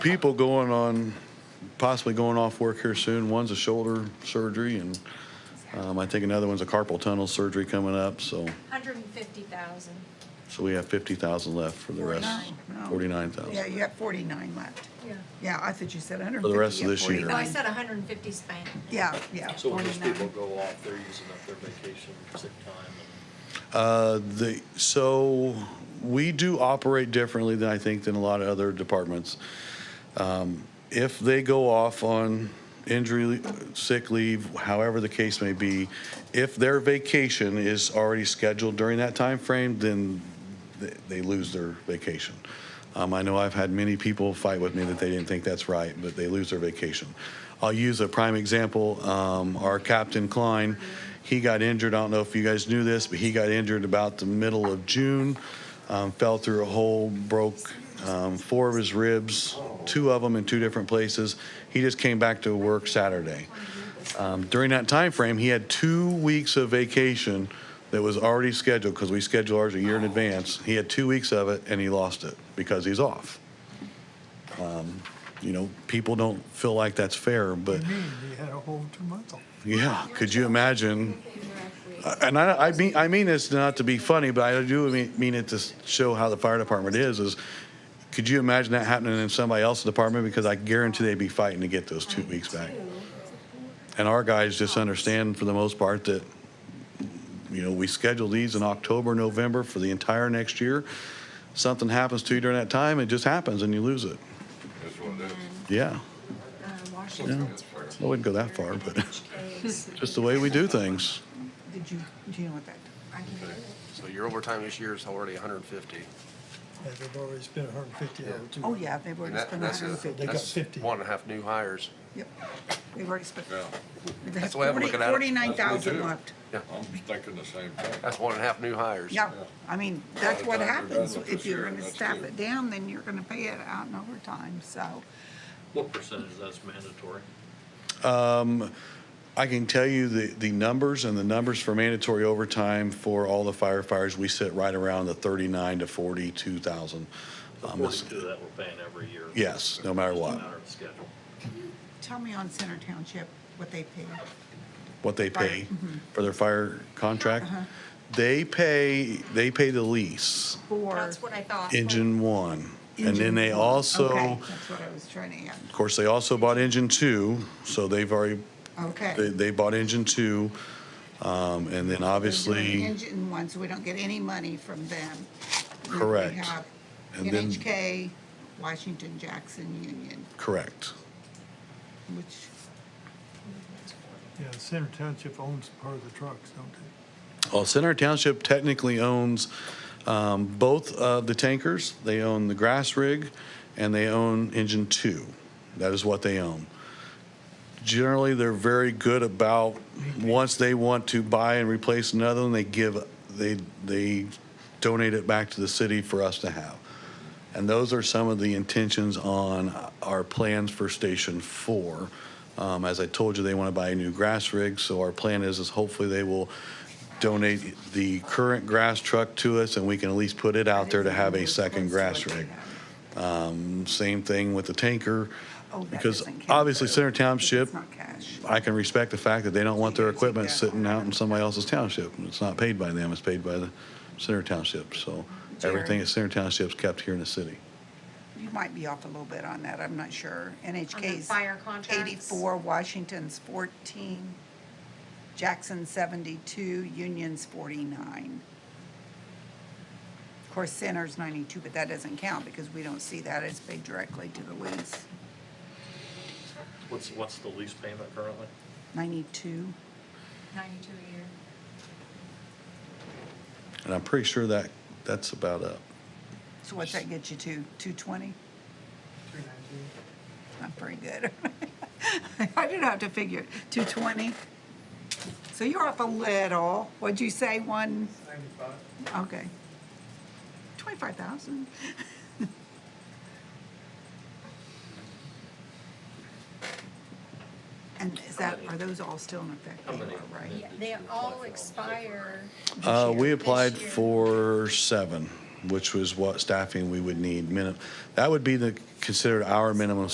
people going on, possibly going off work here soon. One's a shoulder surgery, and um, I think another one's a carpal tunnel surgery coming up. So, Hundred and fifty thousand. so we have fifty thousand left for the rest, No, no. forty-nine thousand. Oh. Yeah, you have forty-nine left. Yeah. Yeah, I thought you said hundred and For fifty. the rest of this year. No, I said hundred and fifty span. Yeah, yeah, So when these people forty-nine. go off, they're using up their vacation, sick time, Uh, the, so we do operate differently than I think than a lot of other departments. Um, If they go off on injury, sick leave, however the case may be, if their vacation is already scheduled during that time frame, then th- they lose their vacation. Um, I know I've had many people fight with me that they didn't think that's right, but they lose their vacation. I'll use a prime example. Um, our Captain Klein, he got injured. I don't know if you guys knew this, but he got injured about the middle of June, um, fell through a hole, broke um, four of his ribs, two of them in two different places. He just came back to work Saturday. Um, during that time frame, he had two weeks of vacation that was already scheduled because we schedule ours a year in advance. He had two weeks of it and he lost it because he's off. Um, you know, people don't feel like that's fair, but Me, we had a whole two months off. yeah, could you imagine? Uh, And I, I mean, I mean this not to be funny, but I do mean, mean it to s- show how the fire department is. Is could you imagine that happening in somebody else's department? Because I guarantee they'd be fighting to get those two weeks back. And our guys just understand for the most part that, you know, we schedule these in October, November for the entire next year. Something happens to you during that time, it just happens and you lose it. That's what it is. Yeah, Uh, Washington's I fourteen. wouldn't go that far, but HK is- just the way we do things. Did you, do you know what that? I can do it. So your overtime this year is already hundred and fifty. Yeah, they've already spent hundred and fifty over two. Oh, yeah, they've already spent that's, hundred and a- fifty. They got that's 50. one and a half new hires. Yep, they've already spent. Yeah, That's the way I'm looking at it. Forty-nine That's what we thousand do. left. I'm thinking the same thing. That's one and a half new hires. Yeah, I mean, that's the what time you're happens. done with If this you're year, gonna that's staff good. it down, then you're gonna pay it out in overtime, so. What percentage that's mandatory? I can tell you the, the numbers and the numbers for mandatory overtime for all the firefighters, we sit right around the thirty-nine to forty-two thousand. The Um, it's- forty-two that we're paying every year. Yes, no matter Just a what, matter of schedule. Tell me on Center Township what they pay. what they pay Right, for their fire contract. They pay, they pay the lease, for That's what I thought. engine one. And then engine they one. also, Okay, That's what I was trying to of course, they also bought engine two, so they've already, add. Okay. they, they bought engine two. Um, and then We're doing obviously, Engine ones, we don't get any money from them. We Correct. have And then- NHK, Washington Jackson Union, correct, which, Yeah, Center Township owns part of the trucks, don't they? Well, Center Township technically owns um, both of the tankers. They own the grass rig and they own engine two. That is what they own. Generally, they're very good about, once they want to buy and replace another one, they give, they, they donate it back to the city for us to have. And those are some of the intentions on our plans for Station Four. Um, as I told you, they want to buy a new grass rig, so our plan is, is hopefully they will donate the current grass truck to us and we can at least put it out there to have a second grass rig. Um, same thing with the tanker. oh, that Because doesn't count. obviously Center It's Township, not cash. I can respect the fact that they don't want their Can't take equipment that. sitting out in somebody else's township. It's not paid by them, it's paid by the Center Township, so everything Jerry. at Center Township's kept here in the city. You might be off a little bit on that, I'm not sure. NHK's fire contracts? eighty-four, Washington's fourteen, Jackson seventy-two, Union's forty-nine. Of course, Center's ninety-two, but that doesn't count because we don't see that, it's paid directly to the lease. What's, what's the lease payment currently? Ninety-two, Ninety-two a year. And I'm pretty sure that, that's about up. so what's that get you to, two twenty? Not very good. I didn't have to figure it, two twenty? So you're off a little, what'd you say, one? Okay. Twenty-five thousand? And is that, are those all still in effect? How many? They are, Right? Yeah, they all expire. Uh, year. we This applied year. for seven. which was what staffing we would need. Minim- That would be the, considered our minimum